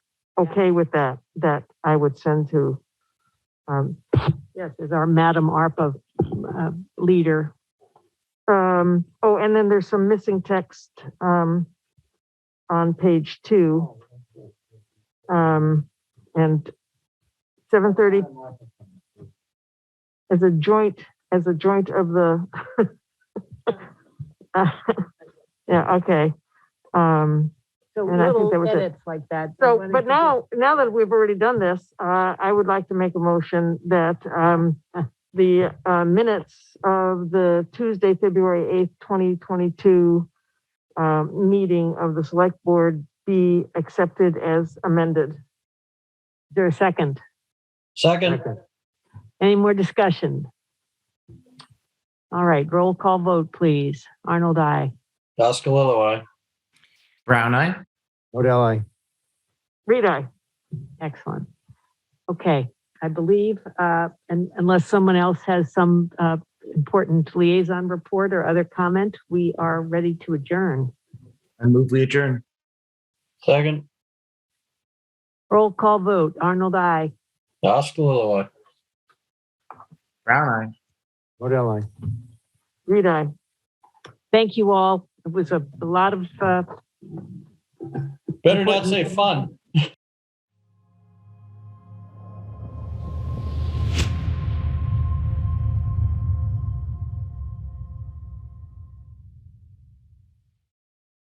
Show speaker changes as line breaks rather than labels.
okay with that, that I would send to, um, yes, is our Madam ARPA, uh, leader. Um, oh, and then there's some missing text, um, on page two. Um, and seven thirty as a joint, as a joint of the. uh, Yeah, okay. Um,
So
And I think
little
that was it.
edits like that. I
so,
wonder if
but
you could-
now, now that we've already done this, uh, I would like to make a motion that, um, the, uh, minutes of the Tuesday, February 8th, 2022, um, meeting of the select board be accepted as amended. Is there a second?
Second,
Any more discussion? All right, roll call vote, please. Arnold, I.
Oscalillo, aye.
Brown eye.
Modell, aye.
Reed, aye.
Excellent. Okay, I believe, uh, and unless someone else has some, uh, important liaison report or other comment, we are ready to adjourn.
I move we adjourn.
Second,
Roll call vote. Arnold, I.
Oscalillo, aye.
Brown eye.
Modell, aye.
Reed, aye.
Thank you all. It was a lot of, uh,
Better not say fun.